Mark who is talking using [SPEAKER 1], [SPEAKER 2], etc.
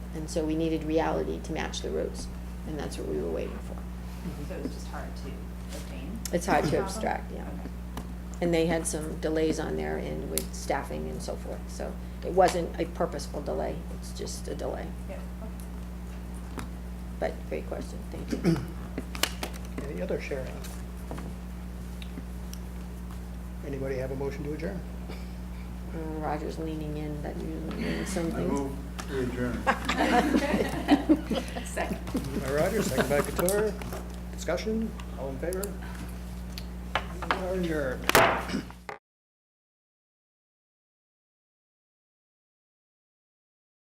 [SPEAKER 1] and so we needed reality to match the roads, and that's what we were waiting for.
[SPEAKER 2] So it was just hard to obtain?
[SPEAKER 1] It's hard to
[SPEAKER 2] Problem?
[SPEAKER 1] abstract, yeah.
[SPEAKER 2] Okay.
[SPEAKER 1] And they had some delays on their end with staffing and so forth, so it wasn't a purposeful delay, it's just a delay.
[SPEAKER 2] Yeah, okay.
[SPEAKER 1] But great question, thank you.
[SPEAKER 3] Any other sharing? Anybody have a motion to adjourn?
[SPEAKER 1] Uh, Roger's leaning in, that usually means some
[SPEAKER 4] I move to adjourn.
[SPEAKER 1] things.
[SPEAKER 2] Second.
[SPEAKER 3] Moved by Roger, second by Couture. Discussion, all in favor? We are adjourned.